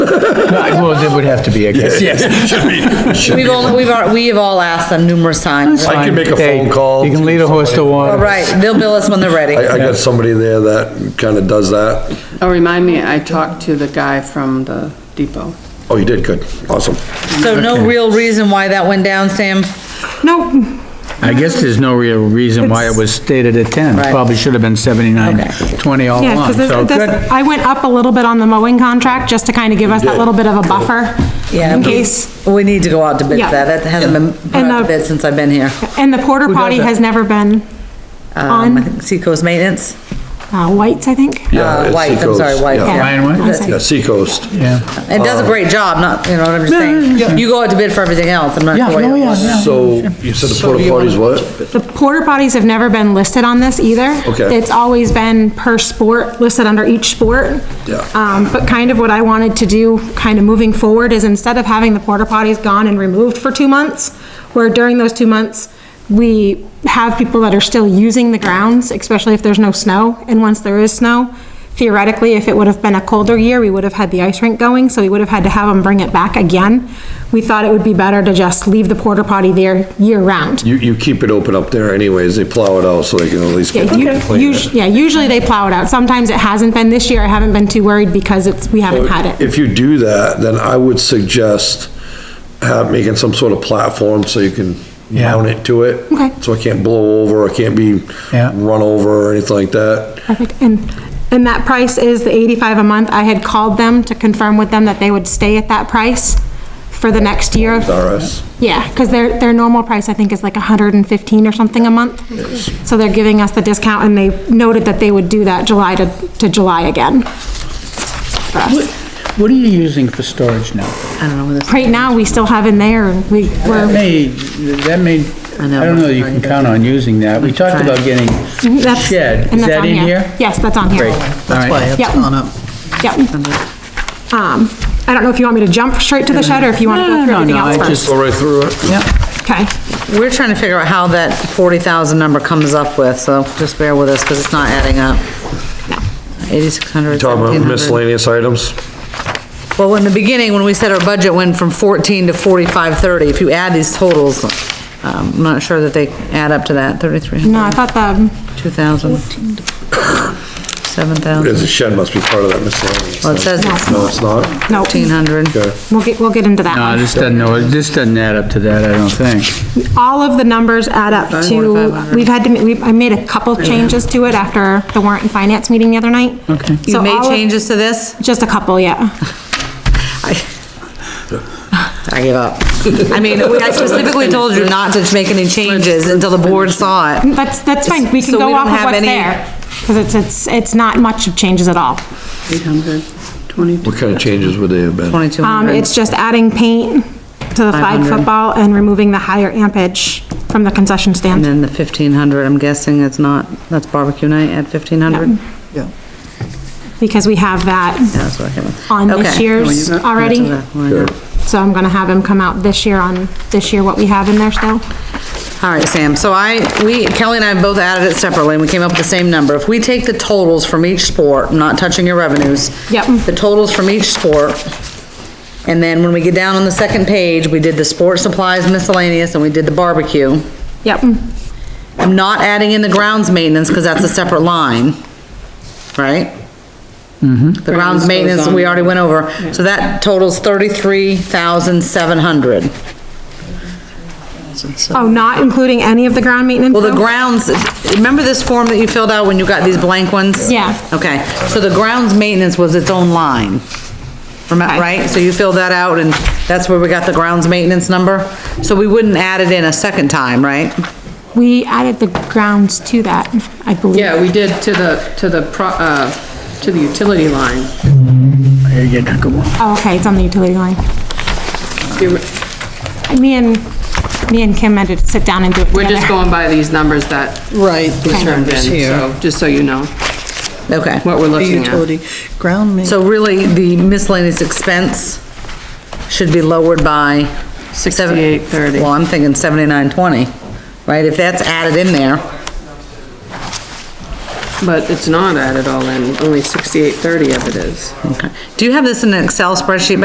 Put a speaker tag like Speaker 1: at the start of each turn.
Speaker 1: Well, it would have to be, I guess.
Speaker 2: Yes, should be, should
Speaker 3: We've
Speaker 2: be.
Speaker 3: all, we've, al- we have all asked them numerous times.
Speaker 2: I can make a
Speaker 1: Hey,
Speaker 2: phone call.
Speaker 1: You can lead a horse to
Speaker 3: All
Speaker 1: water.
Speaker 3: right, they'll bill us when they're ready.
Speaker 2: I, I got somebody there that kinda does that.
Speaker 4: Oh, remind me, I talked to the guy from the depot.
Speaker 2: Oh, you did, good, awesome.
Speaker 3: So no real reason why that went down, Sam?
Speaker 5: No,
Speaker 1: I guess there's no real reason why it was stated at ten.
Speaker 3: Right.
Speaker 1: Probably should have been seventy-nine, twenty all
Speaker 5: yeah,
Speaker 1: along,
Speaker 5: because
Speaker 1: so good.
Speaker 5: I went up a little bit on the mowing contract, just to kind of give us that little bit of a buffer,
Speaker 3: Yeah,
Speaker 5: in
Speaker 3: we-
Speaker 5: case.
Speaker 3: We need to go out to bid for
Speaker 5: Yeah.
Speaker 3: that. That hasn't been put
Speaker 5: And,
Speaker 3: out to
Speaker 5: uh,
Speaker 3: bid since I've been here.
Speaker 5: And the porta potty has never
Speaker 3: Um,
Speaker 5: been
Speaker 3: I
Speaker 5: on,
Speaker 3: think Seacoast Maintenance,
Speaker 5: uh, White's, I think.
Speaker 2: Yeah,
Speaker 3: uh,
Speaker 2: it's
Speaker 3: White, I'm
Speaker 2: Seacoast,
Speaker 3: sorry, White.
Speaker 2: yeah. uh,
Speaker 1: Ryan White?
Speaker 3: That's it.
Speaker 2: Yeah, Seacoast.
Speaker 1: Yeah,
Speaker 3: It does a great job, not, you know what I'm just saying? You go out to bid for everything else, I'm not.
Speaker 1: yeah,
Speaker 3: sure.
Speaker 1: oh, yeah, yeah.
Speaker 2: So, you said the porta potties what?
Speaker 5: The porta potties have never been listed on this either.
Speaker 2: Okay.
Speaker 5: It's always been per sport, listed under each sport.
Speaker 2: Yeah.
Speaker 5: Um, but kind of what I wanted to do, kind of moving forward, is instead of having the porta potties gone and removed for two months, where during those two months, we have people that are still using the grounds, especially if there's no snow, and once there is snow, theoretically, if it would have been a colder year, we would have had the ice rink going, so we would have had to have them bring it back again. We thought it would be better to just leave the porta potty there year-round.
Speaker 2: You, you keep it open up there anyways, they plow it out so they can at least get.
Speaker 5: Yeah,
Speaker 2: it
Speaker 5: u-
Speaker 2: clean.
Speaker 5: usu- yeah, usually they plow it out. Sometimes it hasn't been this year. I haven't been too worried because it's, we haven't had it.
Speaker 2: If you do that, then I would suggest have, making some sort of platform so you can
Speaker 1: Yeah.
Speaker 2: mount it to it.
Speaker 5: Okay.
Speaker 2: So it can't blow over, it can't be
Speaker 1: Yeah.
Speaker 2: run over or anything like that.
Speaker 5: Perfect. And, and that price is the 85 a month. I had called them to confirm with them that they would stay at that price for the next year.
Speaker 2: It's RS.
Speaker 5: Yeah, because their, their normal price, I think, is like 115 or something a month. So they're giving us the discount and they noted that they would do that July to, to July again. for us.
Speaker 1: What are you using for storage now?
Speaker 3: I don't know where this.
Speaker 5: Right now, we still have in there, we,
Speaker 1: That
Speaker 5: we're,
Speaker 1: may, that may,
Speaker 3: I know.
Speaker 1: I don't know that you can count on using that. We talked about getting
Speaker 5: that's.
Speaker 1: shed.
Speaker 5: and
Speaker 1: Is
Speaker 5: that's
Speaker 1: that
Speaker 5: on
Speaker 1: in
Speaker 5: here.
Speaker 1: here?
Speaker 5: Yes, that's on here.
Speaker 1: Great. All
Speaker 6: That's why
Speaker 1: right.
Speaker 5: Yep.
Speaker 6: it's gone up.
Speaker 5: Yep. Um, I don't know if you want me to jump straight to the shed or if you want to go through
Speaker 1: No,
Speaker 5: anything
Speaker 1: no,
Speaker 5: else
Speaker 1: I
Speaker 5: first.
Speaker 1: just,
Speaker 2: Go right through it.
Speaker 1: yeah.
Speaker 5: Okay,
Speaker 3: We're trying to figure out how that forty thousand number comes up with, so just bear with us, because it's not adding up. Eighty-six hundred,
Speaker 2: Talking about
Speaker 3: seventeen hundred.
Speaker 2: miscellaneous items.
Speaker 3: Well, in the beginning, when we said our budget went from fourteen to forty-five thirty, if you add these totals, um, I'm not sure that they add up to that, thirty-three
Speaker 5: no,
Speaker 3: hundred,
Speaker 5: I thought the,
Speaker 3: two thousand, seven thousand.
Speaker 2: There's a shed must be part of that miscellaneous.
Speaker 3: Well, it says it's
Speaker 2: No, it's not?
Speaker 5: no,
Speaker 3: fourteen hundred.
Speaker 2: Okay.
Speaker 5: we'll get, we'll get into that
Speaker 1: No,
Speaker 5: one.
Speaker 1: Uh, this doesn't, no, this doesn't add up to that, I don't think.
Speaker 5: All of the numbers add up to,
Speaker 3: 4,500.
Speaker 5: we've had to, ma- we, I made a couple changes to it after the warrant and finance meeting the other night. Okay.
Speaker 3: You made changes to this?
Speaker 5: Just a couple, yeah.
Speaker 3: I give up. I mean, we- I specifically told you not to make any changes until the board saw it.
Speaker 5: That's, that's fine, we can
Speaker 3: So we
Speaker 5: go
Speaker 3: don't
Speaker 5: off of
Speaker 3: have
Speaker 5: what's
Speaker 3: any-
Speaker 5: there. Because it's, it's, it's not much of changes at all.
Speaker 4: Eight hundred twenty-two.
Speaker 2: What kind of changes would they have been?
Speaker 3: Twenty-two
Speaker 5: Um,
Speaker 3: hundred.
Speaker 5: it's just adding paint to the flag
Speaker 3: 500.
Speaker 5: football and removing the higher ampage from the concession
Speaker 3: And
Speaker 5: stand.
Speaker 3: then the fifteen hundred, I'm guessing it's not, that's barbecue night at fifteen hundred? Yeah,
Speaker 6: Yeah.
Speaker 5: because we have that
Speaker 3: that's what I have.
Speaker 5: on this
Speaker 3: Okay.
Speaker 5: year's already.
Speaker 3: All
Speaker 5: So I'm gonna have him come out this year on, this year what we have in there still.
Speaker 3: right, Sam, so I, we, Kelly and I both added it separately, and we came up with the same number. If we take the totals from each sport, I'm not touching your revenues.
Speaker 5: Yep.
Speaker 3: The totals from each sport, and then when we get down on the second page, we did the sport supplies miscellaneous, and we did the barbecue.
Speaker 5: Yep,
Speaker 3: I'm not adding in the grounds maintenance, because that's a separate line, right? The grounds maintenance, we already went over, so that totals thirty-three thousand seven hundred.
Speaker 5: oh, not including any of the ground maintenance
Speaker 3: Well, the
Speaker 5: though?
Speaker 3: grounds, remember this form that you filled out when you got these blank ones?
Speaker 5: Yeah.
Speaker 3: Okay, so the grounds maintenance was its own line, remember,
Speaker 5: Okay.
Speaker 3: right? So you filled that out, and that's where we got the grounds maintenance number? So we wouldn't add it in a second time, right?
Speaker 5: We added the grounds to that, I believe.
Speaker 4: Yeah, we did to the, to the, pro uh, to the utility line.
Speaker 5: Oh, okay, it's on the utility line.
Speaker 4: You-
Speaker 5: Me and, me and Kim had to sit down and do it
Speaker 4: We're
Speaker 5: together.
Speaker 4: just going by these numbers that
Speaker 6: Right.
Speaker 4: we
Speaker 6: the
Speaker 4: turned in,
Speaker 6: numbers here.
Speaker 4: so, just so you know
Speaker 3: Okay.
Speaker 4: what we're
Speaker 6: The
Speaker 4: looking at.
Speaker 6: utility, ground maintenance.
Speaker 3: So really, the miscellaneous expense should be lowered by. seven-
Speaker 4: 68.30.
Speaker 3: Well, I'm thinking seventy-nine twenty, right? If that's added in there,
Speaker 4: But it's not added all in, only sixty-eight thirty of it is.
Speaker 3: do you have this in an Excel spreadsheet